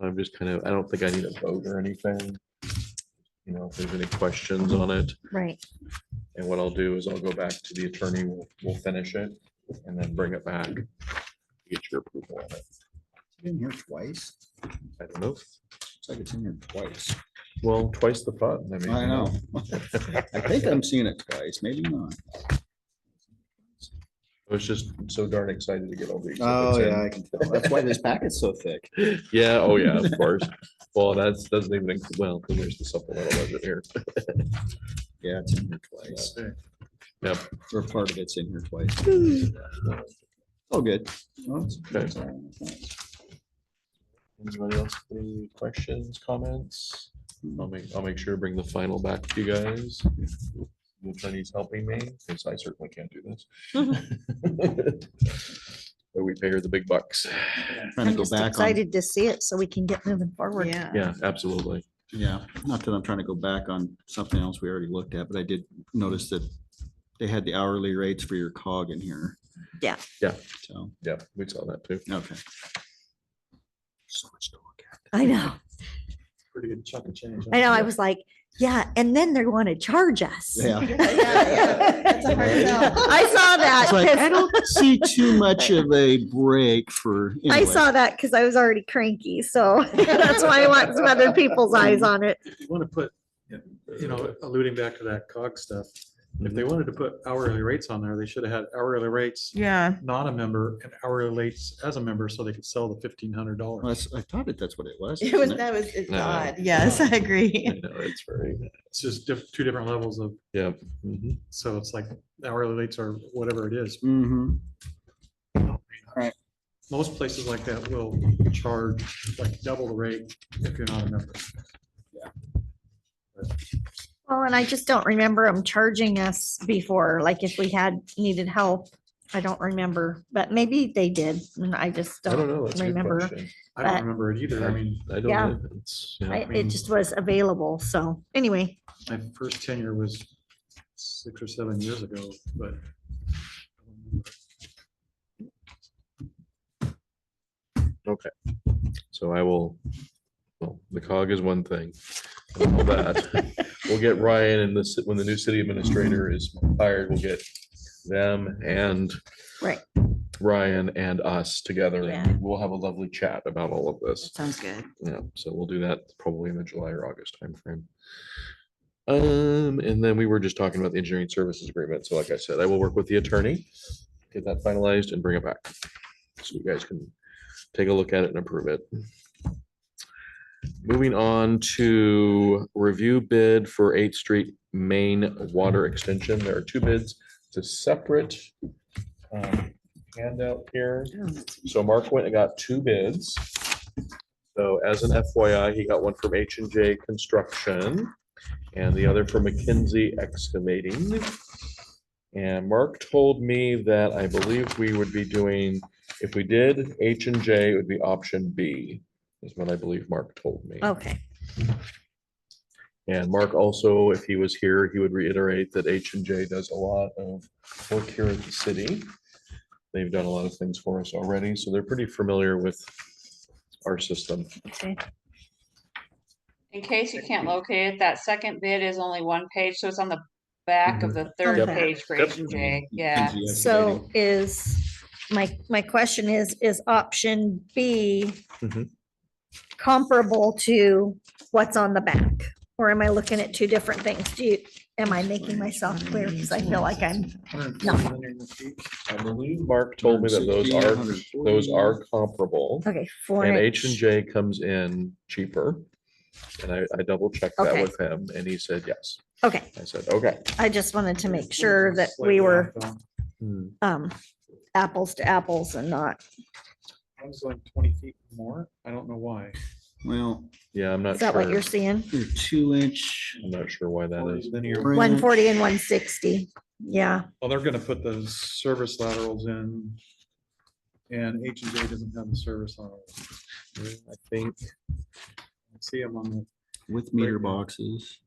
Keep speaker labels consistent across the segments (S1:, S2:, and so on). S1: I'm just kind of, I don't think I need a vote or anything. You know, if there's any questions on it,
S2: Right.
S1: and what I'll do is I'll go back to the attorney, we'll, we'll finish it and then bring it back. Get your approval on it.
S3: In here twice.
S1: I don't know.
S3: It's like it's in here twice.
S1: Well, twice the fun. mean,
S3: I
S1: you
S3: know. I think I'm seeing it twice, maybe not.
S1: I was just so darn excited to get all the.
S3: Oh,
S1: exhibits in.
S3: yeah, I can tell. That's why this packet's so thick.
S1: Yeah, oh yeah, of course. Well, that's, doesn't even, include- well, then there's the supplemental budget here.
S3: Yeah, it's in here twice.
S1: Yep.
S3: Or part of it's in here twice. Oh, good. Well, it's-
S1: Okay.
S3: it's all right. Thanks.
S1: Anybody else, with any questions, comments? I'll make, I'll make sure to bring the final back to you guys. The attorney's helping me, because I certainly can't do this. But we pay her the big bucks.
S3: Trying to
S2: I'm
S3: go
S2: just
S3: back on,
S2: excited to see it so we can get moving forward.
S4: Yeah.
S1: Yeah, absolutely.
S3: yeah, not that I'm trying to go back on something else we already looked at, but I did notice that they had the hourly rates for your cog in here.
S2: Yeah.
S1: Yeah.
S3: So,
S1: Yeah, we saw that too.
S3: okay. So much to look at.
S2: I know.
S1: Pretty good chunk of change.
S2: I know. I was like, yeah. And then they want to charge us.
S3: Yeah.
S4: That's a hard sell.
S2: I saw that.
S3: It's like, I
S2: 'cause-
S3: don't see too much of a break for.
S2: I
S3: anyway.
S2: saw that because I was already cranky. So that's why I want some other people's eyes on it.
S5: you want to put, you know, alluding back to that cog stuff, if they wanted to put hourly rates on there, they should have had hourly rates,
S4: Yeah.
S5: not a member, and hourly rates as a member, so they could sell the fifteen hundred
S3: Well,
S5: dollars.
S3: that's- I thought that that's what it was.
S4: It
S3: isn't
S4: was,
S3: it?
S4: that was, it's
S1: No.
S4: odd. Yes, I
S1: I
S4: agree.
S1: know, it's very,
S5: It's just diff, two different levels of,
S1: yeah. mhm.
S5: so it's like hourly rates are whatever it is.
S3: Mhm.
S5: Most places like that will charge like double the rate if you're not a member.
S2: Well, and I just don't remember them charging us before, like if we had needed help. I don't remember, but maybe they did. And I just
S1: I don't
S2: don't
S1: know. that's a good
S2: remember.
S1: question.
S5: I
S2: But-
S5: don't remember it either. I mean,
S1: I don't
S2: Yeah.
S1: know. It's- yeah.
S2: I- It
S5: mean-
S2: just was available. So anyway,
S5: my first tenure was six or seven years ago, but.
S1: So I will, well, the cog is one thing. and all that. We'll get Ryan and this, when the new city administrator is hired, we'll get them and
S2: Right.
S1: Ryan and us together. and
S2: Yeah.
S1: We'll have a lovely chat about all of this.
S4: Sounds good.
S1: Yeah, so we'll do that probably in the July or August timeframe. Um, and then we were just talking about the engineering services agreement. So like I said, I will work with the attorney, get that finalized and bring it back. So you guys can take a look at it and approve it. Moving on to review bid for Eighth Street Main Water Extension. There are two bids. It's a separate um, handout here. So Mark went and got two bids. So as an FYI, he got one from H and J Construction and the other from McKinsey Excavating. And Mark told me that I believe we would be doing, if we did H and J, it would be option B, is what I believe Mark told me.
S2: okay.
S1: And Mark also, if he was here, he would reiterate that H and J does a lot of work here at the city. They've done a lot of things for us already, so they're pretty familiar with our system.
S2: Okay.
S6: In case you can't locate it, that second bid is only one page, so it's on the back of the third
S2: Yep.
S6: page for H and J, yeah.
S3: Easy
S2: So is, my, my question is, is option B
S1: Mhm.
S2: comparable to what's on the back? Or am I looking at two different things? Do you, am I making myself clear? Because I feel like I'm,
S1: I believe Mark told me that those
S3: 160,
S1: are,
S3: 140.
S1: those are comparable.
S2: okay, four
S1: And
S2: and
S1: H and
S2: H.
S1: J comes in cheaper. And I, I double checked that
S2: Okay.
S1: with him and he said, yes.
S2: Okay,
S1: I said, okay.
S2: I just wanted to make sure that we were
S1: Hmm,
S2: um apples to apples and not,
S5: One's like twenty feet more. I don't know why.
S3: Well,
S1: Yeah, I'm not
S2: is that what
S1: sure.
S2: you're seeing?
S3: your two inch.
S1: I'm not sure why that is.
S5: Linear.
S2: One forty and one sixty, yeah,
S5: Well, they're gonna put the service laterals in. And H and J doesn't have the service laterals.
S1: I think,
S5: I See them on
S3: With meter boxes.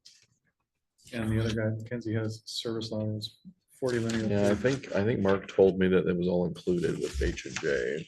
S5: the, and the other guy, Mackenzie has service laterals, forty linear.
S1: yeah, I
S5: feet.
S1: think, I think Mark told me that it was all included with H and J.